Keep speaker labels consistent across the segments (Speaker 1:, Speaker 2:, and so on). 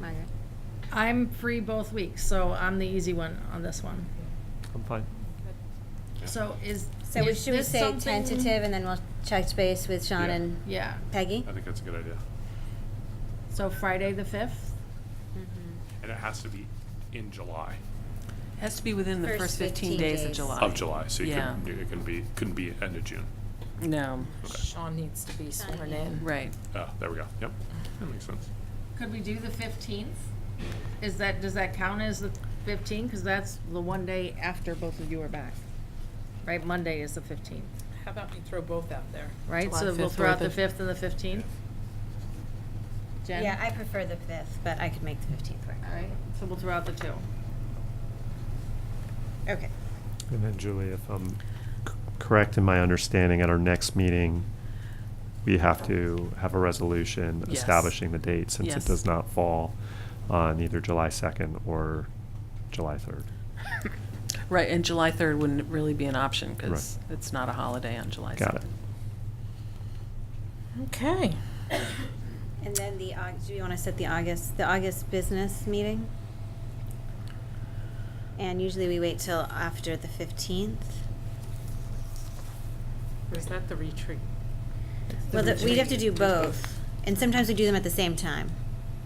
Speaker 1: Margaret?
Speaker 2: I'm free both weeks, so I'm the easy one on this one.
Speaker 3: I'm fine.
Speaker 2: So is.
Speaker 1: So we
Speaker 2: is
Speaker 1: should we
Speaker 2: this
Speaker 1: say
Speaker 2: something-
Speaker 1: tentative and then we'll check space with Sean
Speaker 4: Yeah.
Speaker 1: and
Speaker 2: Yeah,
Speaker 1: Peggy?
Speaker 4: I think that's a good idea.
Speaker 2: so Friday the fifth? Mm-hmm.
Speaker 4: And it has to be in July,
Speaker 5: Has to be within the
Speaker 1: First
Speaker 5: first 15
Speaker 1: 15
Speaker 5: days of
Speaker 1: days.
Speaker 5: July.
Speaker 4: of July, so you
Speaker 5: Yeah.
Speaker 4: couldn't, do- it couldn't be, couldn't be end of June.
Speaker 5: No,
Speaker 4: Okay,
Speaker 6: Sean needs to be
Speaker 1: Sean
Speaker 6: sworn
Speaker 1: needs-
Speaker 6: in.
Speaker 5: right.
Speaker 4: uh, there we go, yep, that makes sense.
Speaker 2: Could we do the fifteenth? Is that, does that count as the fifteenth? Cause that's the one day after both of you are back. Right, Monday is the fifteenth,
Speaker 7: How about we throw both out there?
Speaker 2: right?
Speaker 5: July
Speaker 2: So we'll
Speaker 5: 5th
Speaker 2: throw
Speaker 5: or
Speaker 2: out the
Speaker 5: the-
Speaker 2: fifth and the fifteenth? Jen?
Speaker 1: Yeah, I prefer the fifth, but I could make the fifteenth work.
Speaker 2: All right, so we'll throw out the two.
Speaker 1: Okay.
Speaker 3: And then Julie, if I'm c- correct in my understanding, at our next meeting, we have to have a resolution
Speaker 5: Yes.
Speaker 3: establishing the date since it
Speaker 5: Yes.
Speaker 3: does not fall on either July 2nd or July 3rd.
Speaker 5: Right, and July 3rd wouldn't really be an option because it's not a holiday on July 2nd.
Speaker 3: Got it.
Speaker 6: Okay.
Speaker 1: And then the, Aug- do you want to set the August, the August business meeting? And usually we wait till after the fifteenth.
Speaker 6: Or is that the retreat?
Speaker 1: Well, the- we'd have to do
Speaker 6: retreat.
Speaker 1: both, and sometimes we do them at the same time,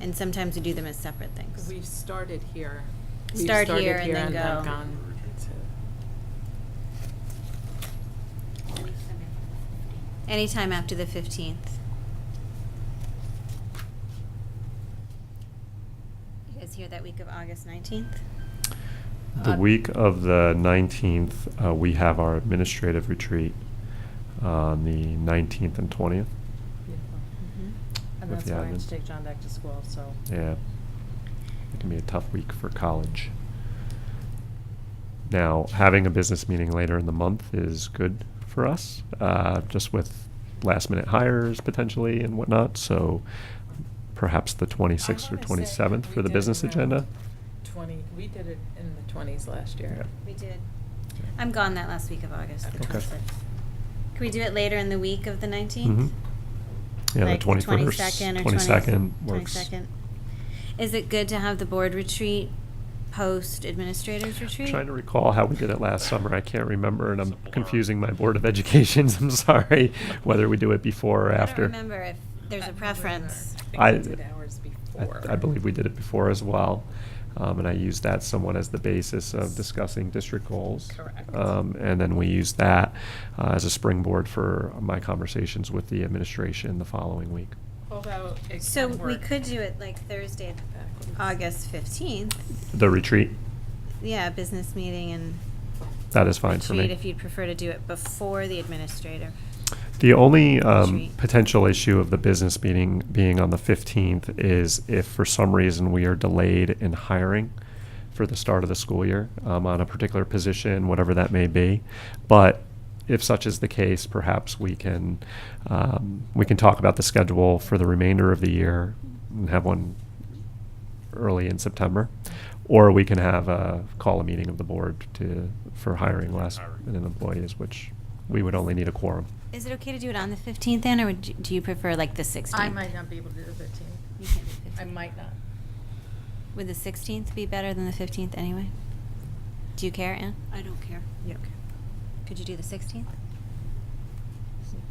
Speaker 1: and sometimes we do them as separate things.
Speaker 6: We've started here. We've
Speaker 1: Start
Speaker 6: started
Speaker 1: here and then
Speaker 6: have
Speaker 1: go.
Speaker 6: gone to-
Speaker 1: Anytime after the fifteenth. You guys hear that week of August nineteenth?
Speaker 3: The
Speaker 2: Uh,
Speaker 3: week of the 19th, uh, we have our administrative retreat on the 19th and 20th.
Speaker 6: Beautiful.
Speaker 2: And
Speaker 3: With
Speaker 2: that's
Speaker 3: the
Speaker 2: why I have
Speaker 3: admin.
Speaker 2: to take John back to school, so.
Speaker 3: Yeah. It can be a tough week for college. Now, having a business meeting later in the month is good for us, uh, just with last minute hires potentially and whatnot. So perhaps the 26th
Speaker 1: Oh,
Speaker 3: or
Speaker 6: I wanna say
Speaker 3: 27th
Speaker 6: we
Speaker 3: for the
Speaker 6: did
Speaker 3: business
Speaker 6: around
Speaker 3: agenda.
Speaker 6: Twenty, we did it in the twenties last year.
Speaker 1: We did. I'm gone that last week of August, the
Speaker 3: Okay.
Speaker 1: 26th. Can we do it later in the week of the
Speaker 3: Mhm.
Speaker 1: 19th?
Speaker 3: Yeah,
Speaker 1: Like
Speaker 3: the 21st,
Speaker 1: 22nd or
Speaker 3: 22nd
Speaker 1: 20th
Speaker 3: works.
Speaker 1: 22nd. Is it good to have the board retreat post administrators retreat?
Speaker 3: Trying to recall how we did it last summer. I can't remember, and I'm
Speaker 4: Simple.
Speaker 3: confusing my Board of Educations. I'm sorry, whether we do it before or
Speaker 1: I
Speaker 3: after.
Speaker 1: don't remember if there's a preference.
Speaker 3: I-
Speaker 6: I think we did ours
Speaker 3: I,
Speaker 6: before.
Speaker 3: I believe we did it before as well. Um, and I used that somewhat as the basis of discussing district goals.
Speaker 6: Correct.
Speaker 3: Um, and then we used that uh, as a springboard for my conversations with the administration the following week.
Speaker 6: Although it
Speaker 1: So
Speaker 6: can
Speaker 1: we
Speaker 6: work
Speaker 1: could do it like Thursday,
Speaker 6: backwards.
Speaker 1: August 15th.
Speaker 3: The retreat,
Speaker 1: Yeah, business meeting and
Speaker 3: that is fine for
Speaker 1: retreat
Speaker 3: me.
Speaker 1: if you'd prefer to do it before the administrator.
Speaker 3: The only um,
Speaker 1: Retreat.
Speaker 3: potential issue of the business meeting being on the 15th is if for some reason we are delayed in hiring for the start of the school year um, on a particular position, whatever that may be. But if such is the case, perhaps we can, um, we can talk about the schedule for the remainder of the year and have one early in September. Or we can have a, call a meeting of the board to, for hiring last,
Speaker 4: Hiring.
Speaker 3: an employees, which we would only need a quorum.
Speaker 1: Is it okay to do it on the 15th then, or would you- do you prefer like the 16th?
Speaker 2: I might not be able to do the fifteenth.
Speaker 1: You can't do
Speaker 2: I
Speaker 1: 15th.
Speaker 2: might not.
Speaker 1: Would the 16th be better than the 15th anyway? Do you care, Anne? I don't care. You don't care. Could you do the 16th,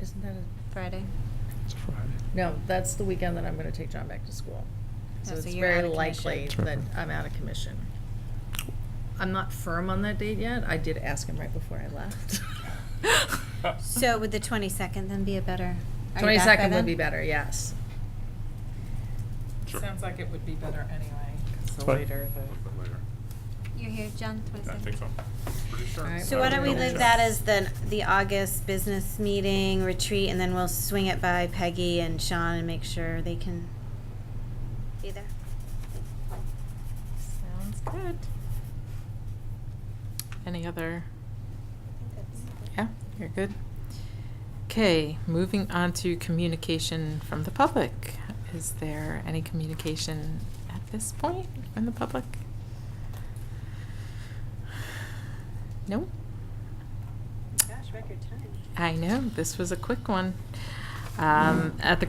Speaker 2: Isn't that a?
Speaker 1: Friday?
Speaker 3: It's a Friday.
Speaker 2: No, that's the weekend that I'm gonna take John back to school. So
Speaker 1: Oh, so
Speaker 2: it's
Speaker 1: you're out
Speaker 2: very
Speaker 1: of
Speaker 2: likely
Speaker 3: commission.
Speaker 2: that I'm out of commission. I'm not firm on that date yet. I did ask him right before I left.
Speaker 1: So would the 22nd then be a better? are you back by
Speaker 2: Twenty-second would
Speaker 1: then?
Speaker 2: be better, yes.
Speaker 4: Sure.
Speaker 6: Sounds like it would be better anyway, 'cause the
Speaker 3: Fine.
Speaker 6: later
Speaker 4: But Later,
Speaker 1: You're here, John, 22nd?
Speaker 4: I think so, pretty
Speaker 2: All
Speaker 4: sure.
Speaker 2: right.
Speaker 1: So why don't we
Speaker 4: Double
Speaker 1: leave
Speaker 4: check.
Speaker 1: that as the, the August business meeting retreat, and then we'll swing it by Peggy and Sean and make sure they can be there?
Speaker 6: the. Sounds good. Any other? Yeah, you're good. Okay, moving on to communication from the public. Is there any communication at this point from the public? No?
Speaker 1: Gosh, record time.
Speaker 6: I know, this was a quick one. Um, At the